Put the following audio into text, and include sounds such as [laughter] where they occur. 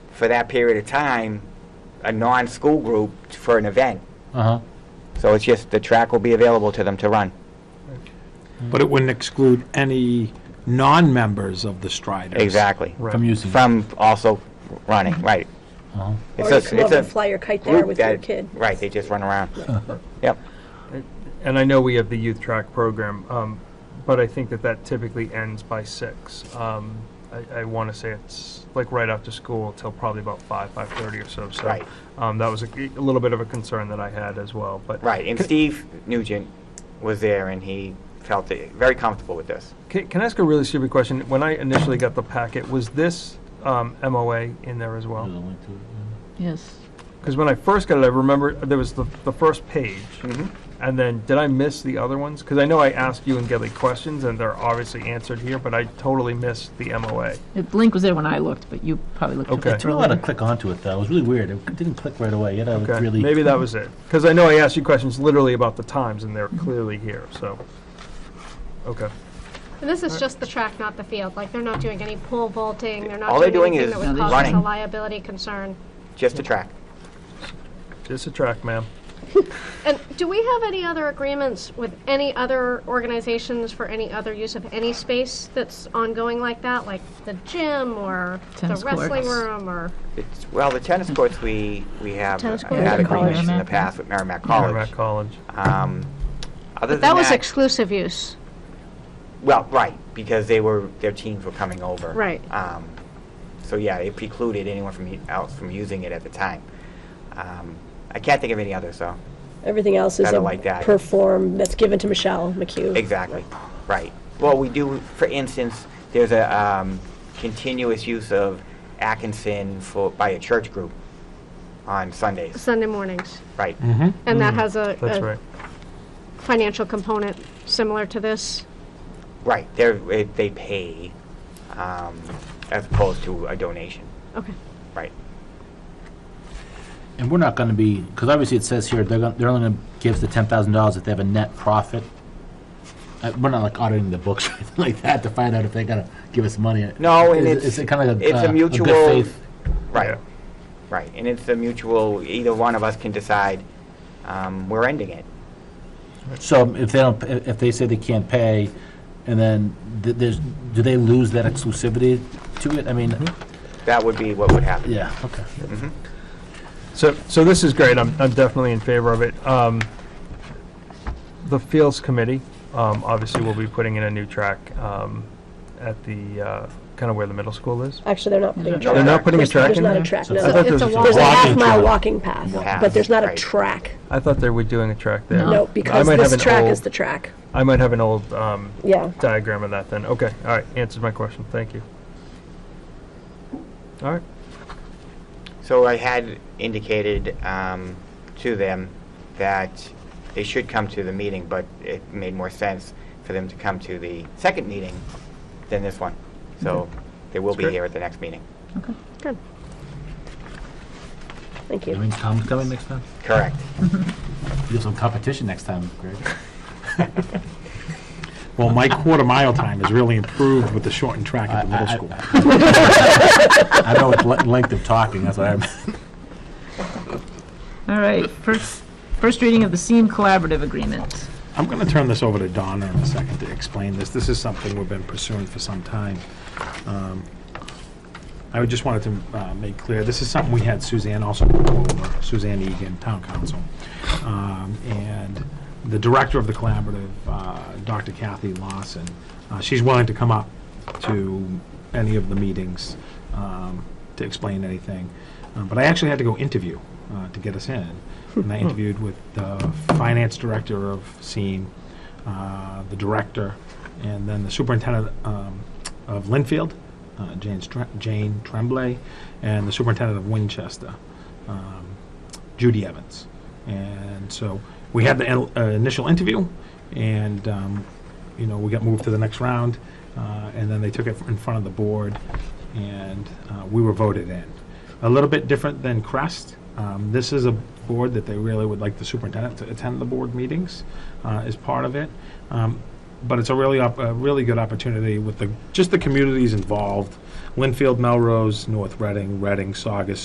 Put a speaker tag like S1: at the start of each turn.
S1: for that period of time, a non-school group for an event.
S2: Uh-huh.
S1: So it's just, the track will be available to them to run.
S3: But it wouldn't exclude any non-members of the Striders.
S1: Exactly.
S2: From using.
S1: From also running, right.
S2: Uh-huh.
S1: It's
S4: Or you
S1: a-
S4: come
S1: it's
S4: up
S1: a
S4: and fly your kite there
S1: group
S4: with your
S1: that-
S4: kid.
S1: Right, they just run around. [laughs] Yep.
S5: And I know we have the youth track program, um, but I think that that typically ends by six. Um, I, I want to say it's like right after school till probably about five, five thirty or so. So
S1: Right.
S5: um, that was a, a little bit of a concern that I had as well. But
S1: Right, and Steve Nugent was there, and he felt it- very comfortable with this.
S5: Can, can I ask a really stupid question? When I initially got the packet, was this um, MOA in there as well?
S6: Yes.
S5: Because when I first got it, I remember there was the, the first page,
S1: Mhm.
S5: and then did I miss the other ones? Because I know I asked you and Gelly questions, and they're obviously answered here, but I totally missed the MOA.
S6: The link was there when I looked, but you probably looked at
S5: Okay.
S6: it
S2: I don't want to
S6: earlier.
S2: click onto it, though. It was really weird. It didn't click right away. You had to
S5: Okay,
S2: really.
S5: maybe that was it. Because I know I asked you questions literally about the times, and they're clearly here. So, okay,
S7: And this is just the track, not the field. Like, they're not doing any pole vaulting, they're
S1: All
S7: not
S1: they're
S7: doing
S1: doing
S7: anything that
S1: is
S7: would
S6: No,
S7: cause
S6: they're
S7: us
S1: running.
S7: a liability concern.
S1: Just a track.
S5: just a track, ma'am.
S7: And do we have any other agreements with any other organizations for any other use of any space that's ongoing like that? Like the gym or the
S6: Tennis
S7: wrestling
S6: courts.
S7: room or,
S1: It's, well, the tennis courts, we, we have
S6: Tennis courts
S1: had
S6: at college.
S1: agreements in the
S6: Merrimack.
S1: past with Merrimack
S5: Merrimack
S1: College.
S5: College.
S1: Um, Other than
S7: that was
S1: that,
S7: exclusive use.
S1: well, right, because they were, their teams were coming over.
S7: Right.
S1: Um, So, yeah, it precluded anyone from, u- else from using it at the time. Um, I can't think of any others, so,
S4: Everything else is
S1: Kinda
S4: a
S1: like that.
S4: perform that's given to Michelle McHugh.
S1: exactly, right. Well, we do, for instance, there's a um, continuous use of Atkinson for, by a church group on Sundays,
S7: Sunday mornings.
S1: right.
S7: And that has a,
S5: That's
S7: a
S5: right.
S7: financial component similar to this.
S1: Right, they're, eh, they pay um, as opposed to a donation,
S7: Okay.
S1: right.
S2: And we're not going to be, because obviously it says here, they're, gonna, they're only going to give us the $10,000 if they have a net profit. Uh, we're not like auditing the books [laughs] or anything like that to find out if they're going to give us money.
S1: No, and
S2: Is-
S1: it's-
S2: is it kind of like a,
S1: it's a
S2: uh,
S1: mutual-
S2: good faith?
S1: Right,
S5: Yeah.
S1: right, and it's a mutual, either one of us can decide, um, we're ending it.
S2: So um, if they don't, if if they say they can't pay, and then th- there's, do they lose that exclusivity to it? I mean,
S1: Mm-hmm. That would be what would happen.
S2: yeah, okay.
S5: So, so this is great. I'm, I'm definitely in favor of it. Um, the Fields Committee, um, obviously, will be putting in a new track um, at the uh, kind of where the middle school is.
S4: Actually, they're not putting a
S6: They're
S4: track.
S5: They're not putting a
S4: There's-
S5: track in
S4: There's not
S5: there.
S4: a track,
S2: So
S4: no.
S2: it's-
S5: I thought
S7: It's
S5: there
S7: a
S5: was
S7: walk.
S4: There's a
S2: Walking
S4: half-mile
S2: track.
S4: walking path,
S1: Path,
S4: but there's not a
S1: right.
S4: track.
S5: I thought they were doing a track there.
S4: No,
S5: I
S4: because
S5: might have
S4: this
S5: an
S4: track
S5: old-
S4: is the track.
S5: I might have an old um,
S4: Yeah.
S5: diagram of that then. Okay, all right, answers my question. Thank you. All right.
S1: So I had indicated um, to them that they should come to the meeting, but it made more sense for them to come to the second meeting than this one. So
S2: Mm-hmm.
S1: they will be
S5: great.
S1: here at the next meeting.
S4: Good. Thank
S2: I
S4: you.
S2: mean, Tom's coming next time.
S1: Correct.
S2: You have some competition next time, Greg.
S3: Well, my quarter mile time has really improved with the shortened track at the middle
S2: I- I-
S3: school.
S2: I know it's le- length of talking, that's what I'm.
S6: All right, first, first reading of the SEEM Collaborative Agreement.
S3: I'm going to turn this over to Donna in a second to explain this. This is something we've been pursuing for some time. Um, I would just wanted to uh, make clear, this is something we had Suzanne also go over, Suzanne Egan, Town Council. Um, And the director of the collaborative, uh, Dr. Kathy Lawson, uh, she's willing to come up to any of the meetings um, to explain anything. Uh, But I actually had to go interview uh, to get us in. And I interviewed with the finance director of SEEM, uh, the director, and then the superintendent um, of Linfield, uh, Jane, Stre- Jane Tremblay, and the superintendent of Winchester, um, Judy Evans. And so we had the in- uh, initial interview, and um, you know we got moved to the next round, uh, and then they took it in front of the board, and uh, we were voted in. A little bit different than Crest. Um, this is a board that they really would like the superintendent to attend the board meetings uh, as part of it. Um, but it's a really, op- a really good opportunity with the, just the communities involved Winfield, Melrose, North Reading, Reading, Saugus,